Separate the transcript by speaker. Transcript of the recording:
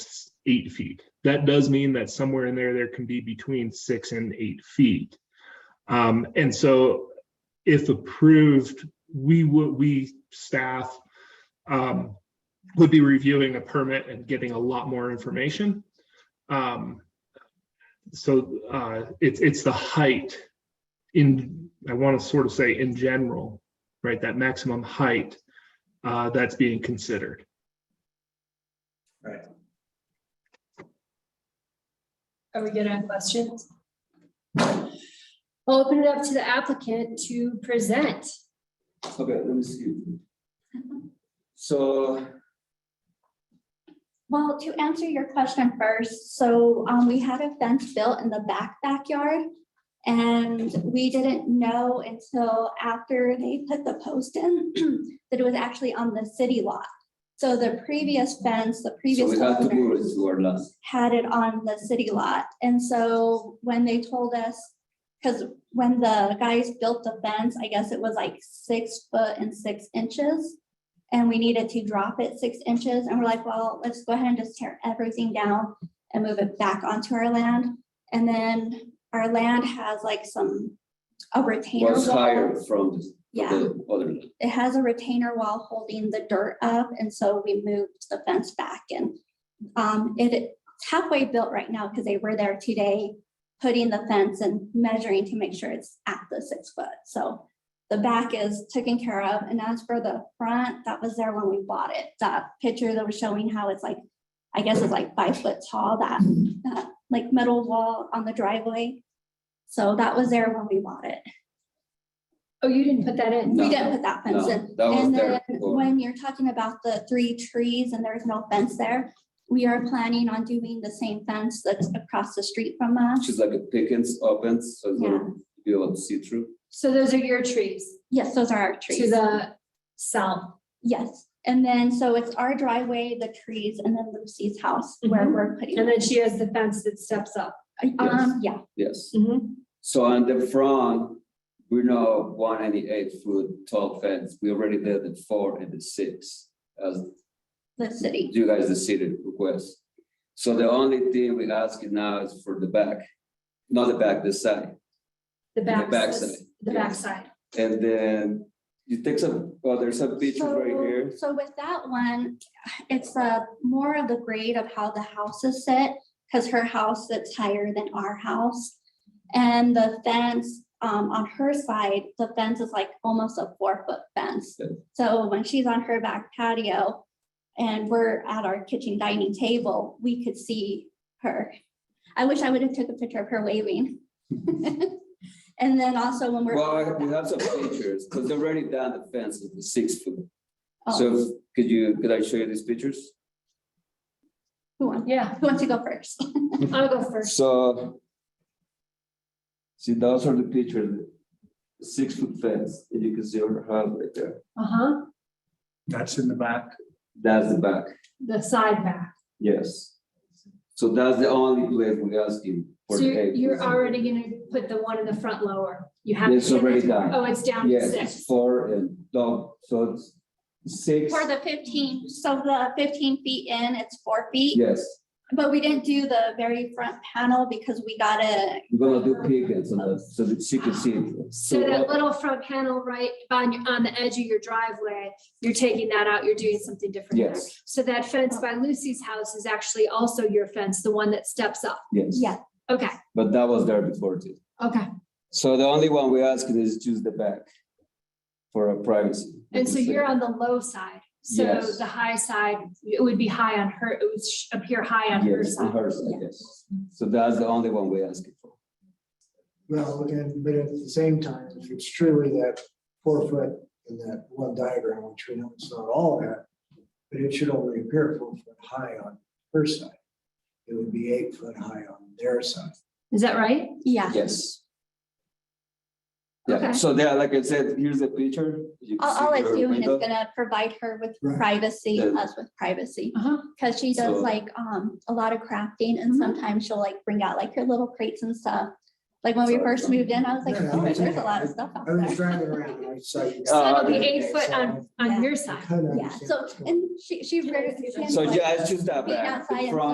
Speaker 1: eight feet. That does mean that somewhere in there, there can be between six and eight feet. Um, and so if approved, we would, we staff um, would be reviewing a permit and getting a lot more information. Um, so uh, it's, it's the height in, I want to sort of say in general, right, that maximum height uh, that's being considered.
Speaker 2: Right.
Speaker 3: Are we good on questions? I'll open it up to the applicant to present.
Speaker 2: Okay, let me see. So,
Speaker 4: Well, to answer your question first, so um, we had a fence built in the back backyard. And we didn't know until after they put the post in that it was actually on the city lot. So the previous fence, the
Speaker 2: so
Speaker 4: previous
Speaker 2: we have to move
Speaker 4: owner
Speaker 2: it to our last.
Speaker 4: had it on the city lot. And so when they told us, because when the guys built the fence, I guess it was like six foot and six inches. And we needed to drop it six inches and we're like, well, let's go ahead and just tear everything down and move it back onto our land. And then our land has like some, a retainer
Speaker 2: Was higher
Speaker 4: wall.
Speaker 2: from the-
Speaker 4: Yeah,
Speaker 2: the other.
Speaker 4: it has a retainer wall holding the dirt up and so we moved the fence back and um, it it's halfway built right now because they were there today putting the fence and measuring to make sure it's at the six foot. So the back is taken care of. And as for the front, that was there when we bought it. That picture that was showing how it's like, I guess it's like five foot tall, that, that like metal wall on the driveway. So that was there when we bought it.
Speaker 3: Oh, you didn't put that in?
Speaker 2: No.
Speaker 4: We didn't put that fence
Speaker 2: No,
Speaker 4: in.
Speaker 2: that was
Speaker 4: And
Speaker 2: there
Speaker 4: then
Speaker 2: before.
Speaker 4: when you're talking about the three trees and there's no fence there, we are planning on doing the same fence that's across the street from us.
Speaker 2: Which is like a pickens open, so it's
Speaker 4: Yeah,
Speaker 2: gonna be able to see through.
Speaker 3: So those are your trees
Speaker 4: yes, those are our
Speaker 3: to
Speaker 4: trees.
Speaker 3: the south.
Speaker 4: Yes, and then so it's our driveway, the trees, and then Lucy's house where
Speaker 3: Mhm.
Speaker 4: we're putting.
Speaker 3: And then she has the fence that steps up. Mm-hmm.
Speaker 4: Um, yeah,
Speaker 2: Yes. So on the front, we now want any eight foot tall fence. We already did the four and the six. As
Speaker 4: the city.
Speaker 2: you guys, the city request. So the only thing we ask you now is for the back, not the back, the side.
Speaker 3: The back.
Speaker 2: backside.
Speaker 3: The backside.
Speaker 2: And then you take some, oh, there's a picture right
Speaker 4: So-
Speaker 2: here.
Speaker 4: So with that one, it's a more of the grade of how the houses sit, because her house sits higher than our house. And the fence, um, on her side, the fence is like almost a four foot fence.
Speaker 2: Yeah.
Speaker 4: So when she's on her back patio and we're at our kitchen dining table, we could see her. I wish I would have took a picture of her waving. And then also when we're.
Speaker 2: Well, I- we have some pictures, because they're already down the fence with the six foot.
Speaker 4: Oh,
Speaker 2: So if- could you, could I show you these pictures?
Speaker 4: Who wants,
Speaker 3: Yeah,
Speaker 4: who wants to go first?
Speaker 2: Mm-hmm.
Speaker 3: I'll go first.
Speaker 2: So. See, those are the pictures, the six foot fence, and you can see her house right there.
Speaker 3: Uh-huh,
Speaker 5: That's in the back.
Speaker 2: That's the back,
Speaker 3: the side back.
Speaker 2: yes. So that's the only place we ask you. for
Speaker 3: So
Speaker 2: the
Speaker 3: you're
Speaker 2: eight
Speaker 3: you're
Speaker 2: foot.
Speaker 3: already gonna put the one in the front lower. You have.
Speaker 2: It's
Speaker 3: to get
Speaker 2: already
Speaker 3: it.
Speaker 2: done.
Speaker 3: Oh, it's down to
Speaker 2: Yes, it's
Speaker 3: six.
Speaker 2: four and, no, so it's six,
Speaker 4: For the fifteen, so the fifteen feet in, it's four feet,
Speaker 2: yes,
Speaker 4: but we didn't do the very front panel because we got a,
Speaker 2: we're gonna do pickets on that, uh, so that she can see. it.
Speaker 3: So
Speaker 2: uh,
Speaker 3: that little front panel right on, your- on the edge of your driveway, you're taking that out, you're doing something different there.
Speaker 2: Yes.
Speaker 3: So that fence by Lucy's house is actually also your fence, the one that steps up.
Speaker 2: Yes.
Speaker 4: yeah,
Speaker 3: Okay,
Speaker 2: But that was there before too.
Speaker 3: okay.
Speaker 2: So the only one we ask is choose the back for our privacy.
Speaker 3: And so you're on the low side. So
Speaker 2: Yes.
Speaker 3: the high side, it would be high on her, it would sh- appear high on her
Speaker 2: Yes, on
Speaker 3: side.
Speaker 2: her side, yes. So that's the only one we ask for.
Speaker 5: Well, and, but at the same time, if it's truly that four foot in that one diagram, which we know it's not all that, but it should only appear four foot high on her side. It would be eight foot high on their side.
Speaker 3: Is that right?
Speaker 4: yeah.
Speaker 2: Yes. Yeah,
Speaker 3: Okay.
Speaker 2: so there, like I said, here's the picture. You can see
Speaker 4: All, all it's
Speaker 2: her
Speaker 4: doing is
Speaker 2: window.
Speaker 4: gonna provide her with
Speaker 5: Right.
Speaker 4: privacy,
Speaker 2: Yeah.
Speaker 4: us with privacy,
Speaker 3: Uh-huh.
Speaker 4: because she
Speaker 2: So-
Speaker 4: does like, um, a lot of crafting and
Speaker 3: Mhm.
Speaker 4: sometimes she'll like bring out like her little crates and stuff. Like when we
Speaker 2: Sorry.
Speaker 4: first moved in, I was like,
Speaker 5: Yeah,
Speaker 4: oh,
Speaker 5: I
Speaker 4: there's
Speaker 5: think-
Speaker 4: a lot of stuff out
Speaker 5: I was
Speaker 4: there.
Speaker 5: driving around and I saw you.
Speaker 3: So
Speaker 2: Uh,
Speaker 3: it'll be eight foot on, on your
Speaker 5: I
Speaker 3: side.
Speaker 5: kinda
Speaker 4: Yeah,
Speaker 5: understand
Speaker 4: so,
Speaker 5: what's going on.
Speaker 4: and she, she.
Speaker 3: Can I see that?
Speaker 4: she-
Speaker 2: So yeah, I choose that
Speaker 4: Being
Speaker 2: back,
Speaker 4: outside
Speaker 2: the
Speaker 4: and
Speaker 2: front